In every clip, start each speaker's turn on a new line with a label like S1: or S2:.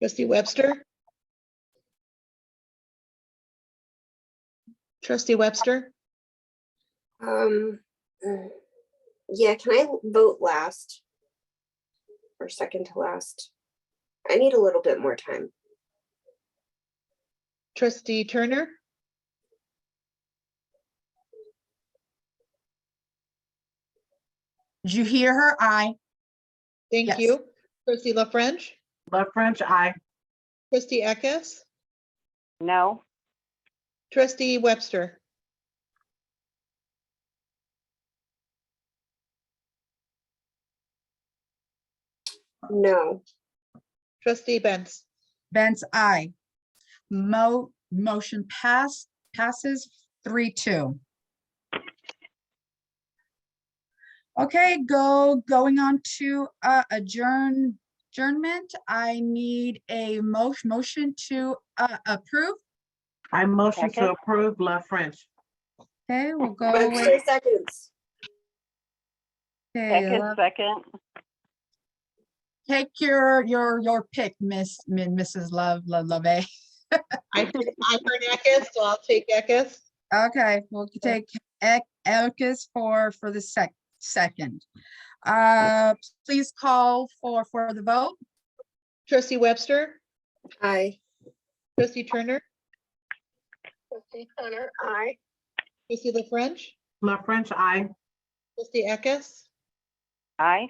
S1: Trustee Webster? Trustee Webster?
S2: Um, mm, yeah, can I vote last? Or second to last? I need a little bit more time.
S1: Trustee Turner?
S3: Did you hear her? Aye.
S1: Thank
S3: Yes.
S1: you. Trustee La French?
S3: Love French, aye.
S1: Trustee Eckes?
S4: No,
S1: Trustee Webster?
S2: No,
S1: Trustee Benz?
S3: Benz, aye. Mo, motion pass, passes three, two. Okay, go, going on to uh, adjourn, adjournment. I need a mo- motion to uh, approve.
S5: I motion
S4: Second.
S5: to approve La French.
S3: Okay, we'll go
S2: three
S3: with.
S2: seconds.
S3: okay,
S4: second,
S3: love-
S4: second.
S3: Take your, your, your pick, Miss, Min- Mrs. Love, Lo- Love.
S1: I heard I heard Eckes, so I'll take Eckes.
S3: Okay, we'll take Ek- Elkis for, for the sec, second. Uh, please call for, for the vote.
S1: Trustee Webster?
S2: Aye.
S1: Trustee Turner?
S2: Trustee Connor, aye.
S1: Trustee La French?
S5: La French, I.
S1: Trustee Eckes?
S4: Aye.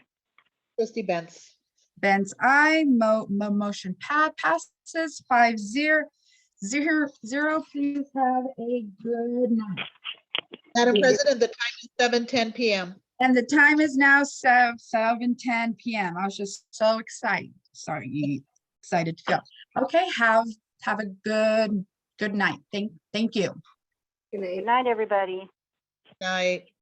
S1: Trustee Benz?
S3: Ben's I, mo, mo, motion pa- passes five zero, zero, zero. Please have a good night.
S1: Madam President, the time is seven ten PM.
S3: And the time is now seven, seven ten PM. I was just so excited. Sorry, excited to go. Okay, have, have a good, good night. Thank, thank you.
S2: Good night.
S4: Good night, everybody.
S1: Night.